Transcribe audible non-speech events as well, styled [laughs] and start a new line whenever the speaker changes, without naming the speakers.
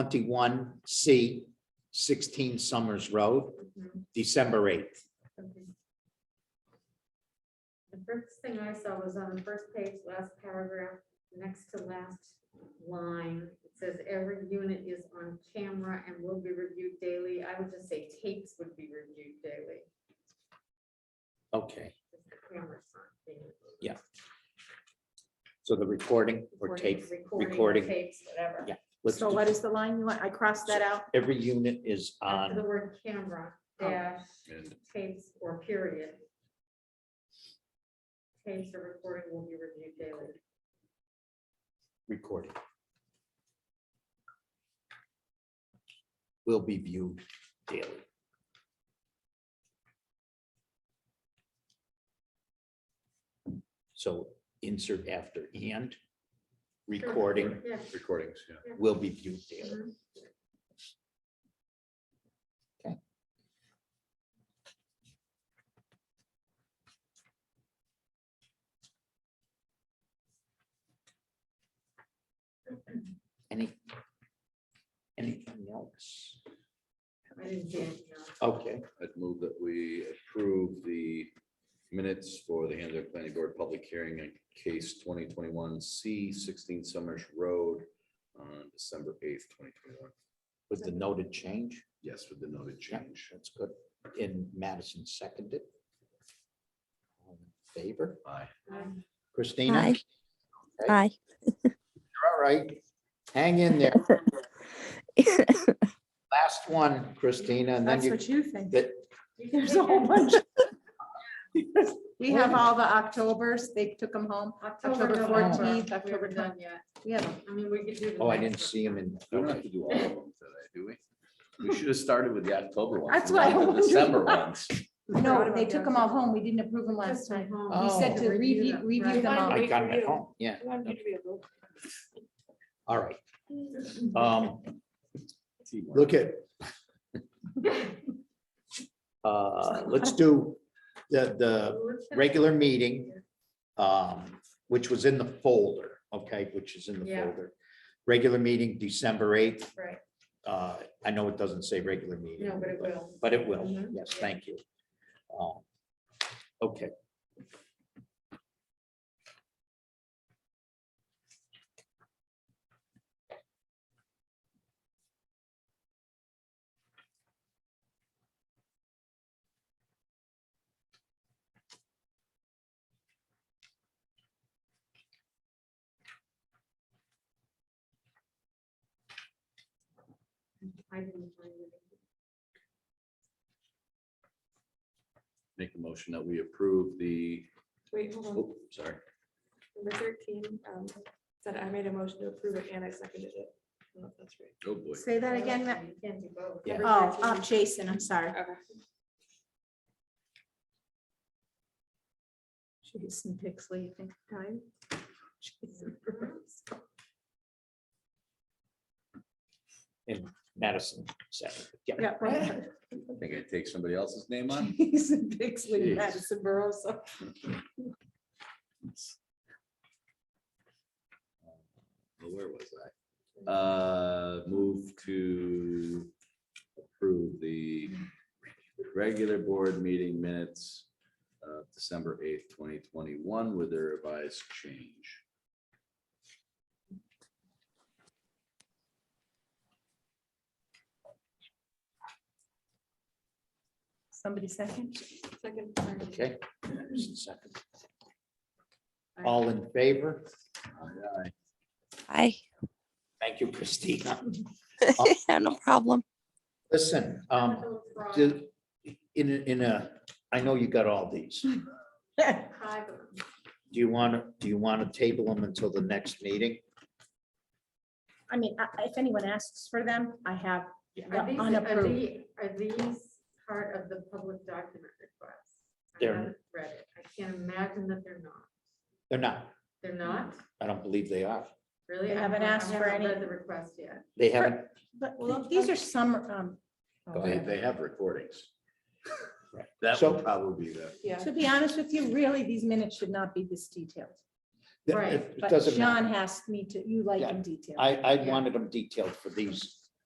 twenty-one C, sixteen Summers Road,
Mhm,
December eighth.
okay. The first thing I saw was on the first page, last paragraph, next to last line. It says every unit is on camera and will be reviewed daily. I would just say tapes would be reviewed daily.
Okay,
because the cameras aren't being-
Yeah, so the recording or
recording-
tape, recording.
Recording, tapes, whatever.
Yeah. let's
So
do-
what is the line you want? I crossed that out.
every unit is
After the
on, Oh.
word camera, dash, tapes or period. Tapes or recording will be reviewed daily.
recording. Will be viewed daily. So insert after and,
Sure,
recording
Yeah.
recordings, yeah.
will be viewed daily.
mhm.
Any? Anything else?
I didn't see it, no.
Okay,
I'd move that we approve the minutes for the Hanover Planning Board Public Hearing in case twenty twenty-one C sixteen Summers Road on December eighth, twenty twenty-one.
with the noted change,
Yes, with the noted change.
that's good. And Madison seconded. All in Favor,
Aye.
Um,
Christina?
Hi.
Okay.
Hi.
All right, hang in there. Last one, Christina, and then
That's
you,
what you think.
that,
you can
[laughs] There's
take
a whole [laughs]
it.
bunch.
[laughs]
We have all the Octobers. They took them home. October
November,
14th,
we
October
haven't done yet.
We have 'em.
I mean, we could do. the
oh, I
next
didn't
one.
see him in.
We don't have to do all of them today, do we? We should have started with the October ones.
That's what I
not the
wondered.
December ones.
No, they took them all home. We didn't approve them last
Just at
time.
home.
We said to
Oh.
review,
Review
review
them,
them all.
I got him at home, yeah, all right. Um,
Teamwork.
look at, [laughs] uh, let's do the, the Uh, regular meeting, um, which was in the folder, okay, which is in the
Yeah.
folder. Regular meeting, December eighth.
Right.
Uh, I know it doesn't say regular meeting.
No, but it will.
But it will,
Mhm.
yes, thank you. Um, Okay.
I didn't find it.
Make a motion that we approve the,
Wait, hold on,
oh, sorry,
number thirteen, um, said I made a motion to approve it and I seconded it. I don't know if that's right.
oh boy.
Say that again. Ma-
You can't do both.
Yeah.
Oh, um, Jason, I'm sorry.
Okay.
Jason Pixley, I think, time. Jason Burrows.
Madison said, yeah,
[laughs] Yeah, right.
I think I take somebody else's name on.
Jason Pixley,
Jeez.
Madison Burrows.
Well, Where was I? Uh, move to approve the regular board meeting minutes of December eighth, twenty twenty-one with a revised change.
Somebody second? [laughs]
Second, sorry.
okay. Madison second. All in favor?
Aye, aye.
Hi.
Thank you, Christina.
[laughs] No problem.
Listen, um,
Little frog,
do- in, a- in a, I know you got all these. Do
five of them.
you want to, do you want to table them until the next meeting?
I mean, I- if anyone asks for them, I have
Are
the
these, are
unapproved.
the- are these part of the public document request? I
They're-
haven't read it. I can't imagine that they're not.
They're not.
They're not,
I don't believe they are.
really?
They
I
haven't asked
I
for
haven't
any-
read The request yet.
They haven't,
But these are some, um.
Go
They,
ahead.
they have recordings.
Right.
That
So-
will probably be the,
Yeah,
To be honest with you, really, these minutes should not be this detailed.
it
Right,
it
But
doesn't
John
matter.
has me to, you like
Yeah.
in detail.
I, I wanted them detailed for these